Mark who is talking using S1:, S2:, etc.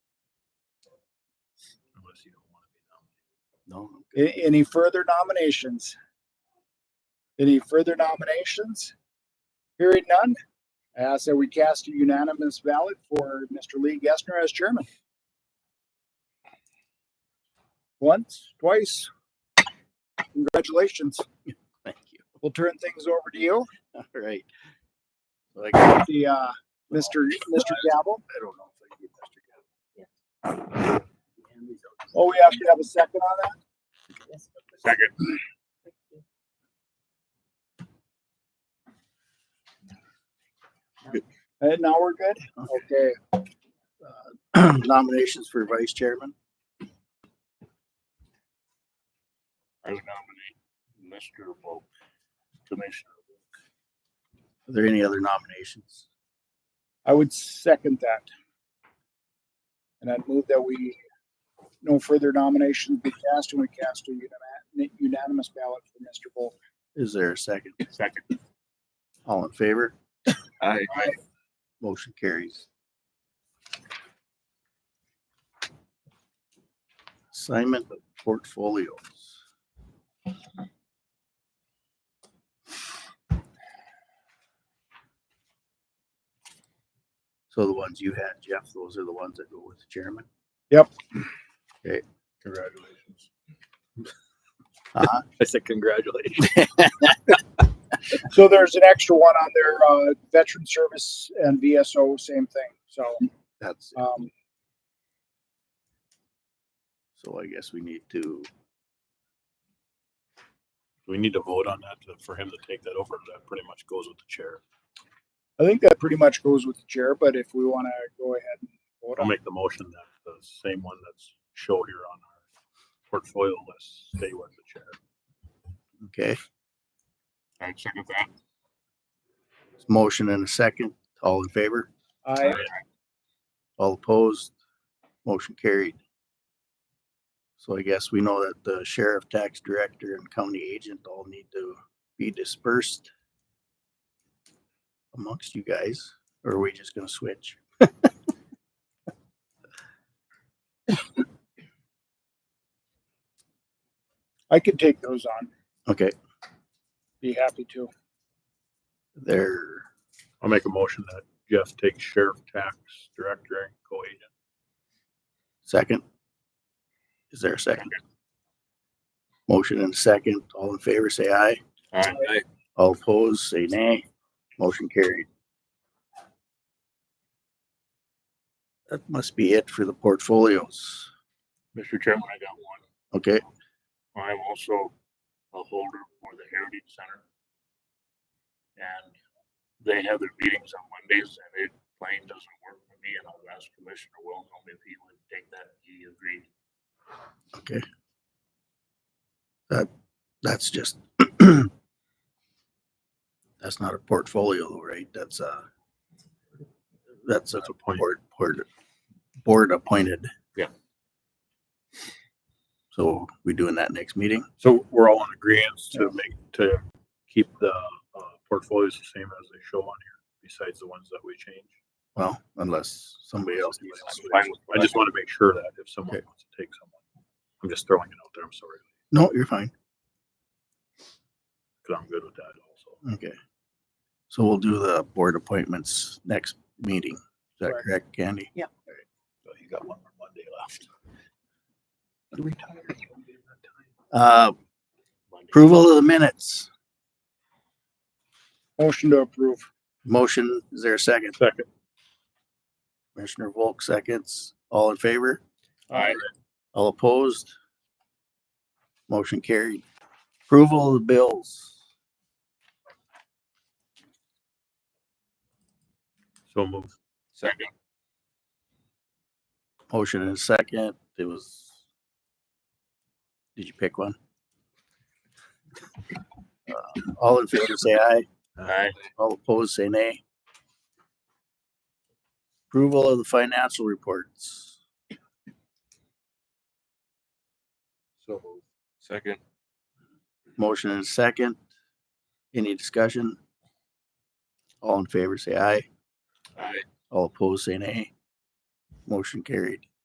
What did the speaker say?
S1: us, you don't want to be nominated.
S2: No. A- Any further nominations? Any further nominations? Hearing none, I ask that we cast a unanimous ballot for Mr. Lee Gessner as chairman. Once, twice. Congratulations.
S1: Thank you.
S2: We'll turn things over to you,
S1: All right. So I guess-
S2: the, uh, Mr. Mr. Gavel.
S1: I don't know if I can get Mr. Gavin.
S2: Oh, we have to have a second on that?
S1: Second.
S2: And now we're good? Okay.
S3: nominations for vice chairman.
S1: I would nominate Mr. Volk, Commissioner.
S3: Are there any other nominations?
S2: I would second that. And I'd move that we, no further nominations be cast and we cast a unima- unanimous ballot for Mr. Volk.
S3: Is there a second?
S1: Second.
S3: All in favor?
S1: I
S3: Motion carries. Assignment of portfolios. So the ones you had, Jeff, those are the ones that go with the chairman?
S1: Congratulations.
S3: Uh-huh.
S1: I said congratulations.
S2: So there's an extra one on there, uh, veteran service and VSO, same thing. So,
S3: That's,
S2: um,
S3: so I guess we need to,
S1: We need to vote on that to- for him to take that over. That pretty much goes with the chair.
S2: I think that pretty much goes with the chair, but if we want to go ahead and vote
S1: I'll
S2: on it.
S1: make the motion that the same one that's shown here on our portfolio list stay with the chair.
S3: okay?
S1: I second that.
S3: Motion and a second. All in favor?
S2: I,
S3: All opposed? Motion carried. So I guess we know that the sheriff, tax director, and county agent all need to be dispersed amongst you guys, or are we just gonna switch?
S2: I could take those on,
S3: Okay,
S2: be happy to.
S3: there,
S1: I'll make a motion that Jeff takes sheriff, tax, director, and co-agent.
S3: second? Is there a second? Motion and a second. All in favor, say aye.
S1: Aye.
S3: All opposed, say nay. Motion carried. That must be it for the portfolios.
S1: Mr. Chairman, I got one.
S3: Okay,
S1: I'm also a holder for the Heritage Center. And they have their meetings on Mondays and it plain doesn't work for me and I've asked Commissioner Wilhelm if he would take that. He agreed.
S3: that's just that's not a portfolio, though, right? That's a that's a
S1: That's a point.
S3: board board board appointed.
S1: Yeah.
S3: So we doing that next meeting?
S1: So we're all in agreement to make, to keep the uh, portfolios the same as they show on here, besides the ones that we change.
S3: Well, unless somebody else needs to
S1: I'm
S3: switch.
S1: fine with- I just want to make sure that if someone
S3: Okay.
S1: wants to take someone, I'm just throwing it out there. I'm sorry,
S3: No, you're fine.
S1: because I'm good with that also.
S3: Okay. So we'll do the board appointments next meeting. Is that
S2: Correct.
S3: correct, Candy?
S1: So you got one more Monday left.
S3: Uh,
S1: Monday.
S3: approval of the minutes.
S2: Motion to approve.
S3: Motion, is there a second?
S1: Second.
S3: Commissioner Volk seconds. All in favor?
S1: Aye.
S3: All opposed? Motion carried. Approval of the bills.
S1: So move. Second.
S3: Motion and a second. It was. Did you pick one? Uh, All in favor, say aye.
S1: Aye.
S3: All opposed, say nay. Approval of the financial reports.
S1: So move. Second.
S3: Motion and a second. Any discussion? All in favor, say aye.
S1: Aye.
S3: All opposed, say nay. Motion carried.